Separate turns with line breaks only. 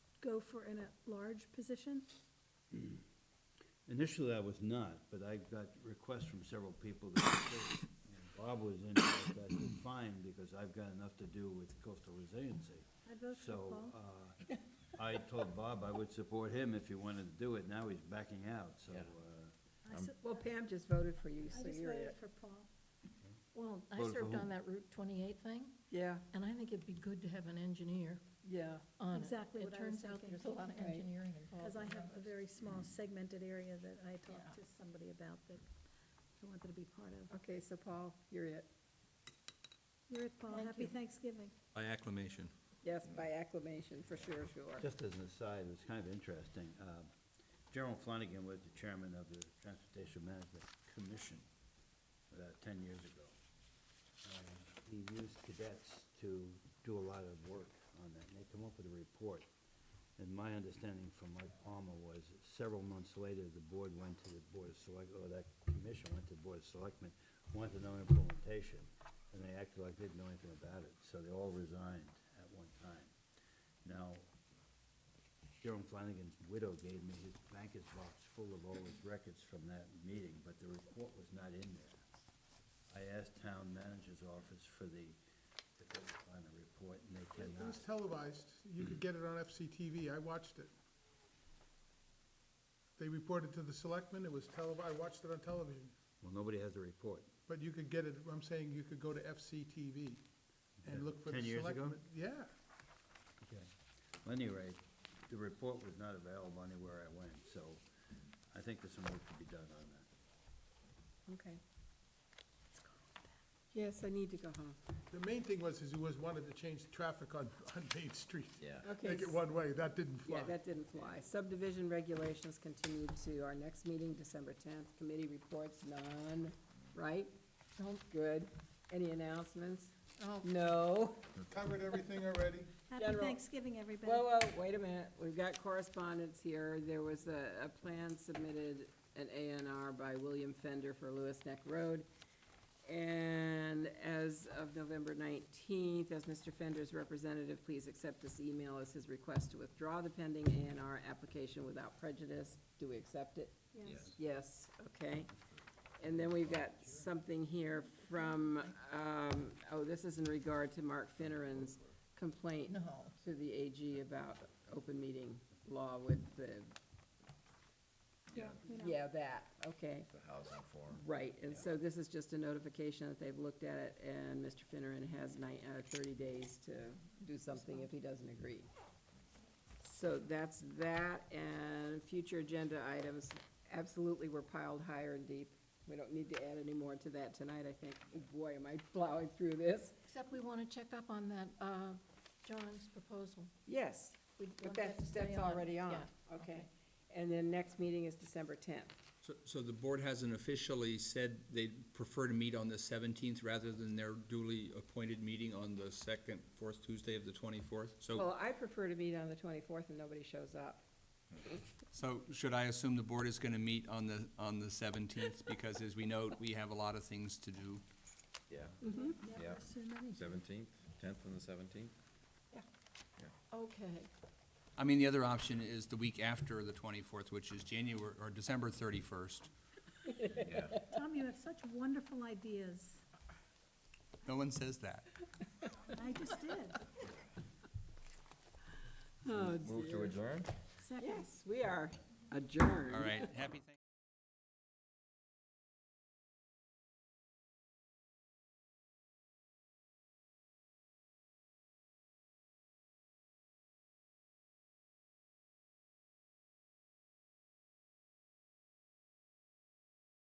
go for an at-large position?
Initially, I was not, but I got requests from several people that I did. And Bob was in, I said, fine, because I've got enough to do with coastal resiliency.
I'd vote for
So,
Paul.
uh, I told Bob I would support him if he wanted to do it, now he's backing out, so,
Yeah.
uh,
I
um,
s-
Well, Pam just voted for you,
I
so
just
you're
voted
it.
for Paul.
Well, I
Voted for
served
who?
on that Route 28 thing,
Yeah,
and I think it'd be good to have an engineer
yeah,
on it.
Exactly what I was
It turns out
thinking.
there's a lot of
Right.
engineering involved.
Because I
in
have
that.
a very small
Mm-hmm.
segmented area that I talked to
Yeah.
somebody about that I wanted to be part of.
okay, so Paul, you're it.
You're it, Paul.
Thank
Happy
you.
Thanksgiving.
By acclamation.
Yes, by acclamation, for sure, sure.
just as an aside, it's kind of interesting. uh, Gerald Flanagan was the chairman of the Transportation Management Commission about ten years ago. And He used cadets to do a lot of work on that, and they come up with a report. And my understanding from Mike Palmer was that several months later, the board went to the Board of Select, or that commission went to the Board of Selectmen, wanted to know implementation, and they acted like they didn't know anything about it, so they all resigned at one time. Now, Jerome Flanagan's widow gave me his banker's box full of all his records from that meeting, but the report was not in there. I asked town manager's office for the, if they could find the report, and they
It
cannot. Mm.
was televised. You could get it on FCTV. I watched it. They reported to the selectmen. It was tele, I watched it on television.
Well, nobody has the report.
But you could get it, I'm saying you could go to FCTV and look for the selectmen.
10 years ago?
Yeah.
Okay. Well, anyway, the report was not available anywhere I went, so I think there's some work to be done on that.
Okay. Yes, I need to go home.
The main thing was, is he was wanted to change the traffic on, on Main Street.
Yeah.
Okay.
Make it
s-
one way. That didn't fly.
Yeah, that didn't fly. Subdivision regulations continued to our next meeting, December tenth. Committee reports, none, right?
Nope.
Good. Any announcements?
Oh,
Mm.
No.
Covered everything already.
Happy
General. uh,
Thanksgiving, everybody.
Whoa, whoa, wait a minute, we've got correspondence here. There was a, a plan submitted, an ANR by William Fender for Lewis Neck Road. And as of November nineteenth, as Mr. Fender's representative, please accept this email as his request to withdraw the pending ANR application without prejudice. Do we accept it?
Yes.
Yes, okay. And then we've got something here from, um, oh, this is in regard to Mark Finneran's complaint
no.
to the AG about open meeting law with the,
Yeah, we know.
yeah, that, okay.
the housing form.
Right, and so this is just a notification that they've looked at it, and Mr. Finneran has nine, uh, thirty days to do something if he doesn't agree. So that's that, and future agenda items absolutely were piled higher and deep. We don't need to add any more to that tonight, I think. Oh, Boy, am I plowing through this.
Except we want to check up on that, uh, John's proposal.
Yes,
We
but
want that
that's,
to
that's
stay on.
already on,
Yeah.
okay. And then next meeting is December tenth.
So, so the board hasn't officially said they'd prefer to meet on the seventeenth rather than their duly appointed meeting on the second, fourth Tuesday of the twenty-fourth? So,
Well, I prefer to meet on the twenty-fourth and nobody shows up.
so should I assume the board is gonna meet on the, on the seventeenth? Because as we know, we have a lot of things to do.
Yeah,
Yeah, so many.
seventeenth, tenth and the seventeenth?
Okay,
I mean, the other option is the week after the twenty-fourth, which is January, or December thirty-first.
Yeah.
Tom, you have such wonderful ideas.
No one says that.
I just did.
Oh,
Move to adjourn?
Second.
Yes, we are adjourned.
All right, happy Thanksgiving.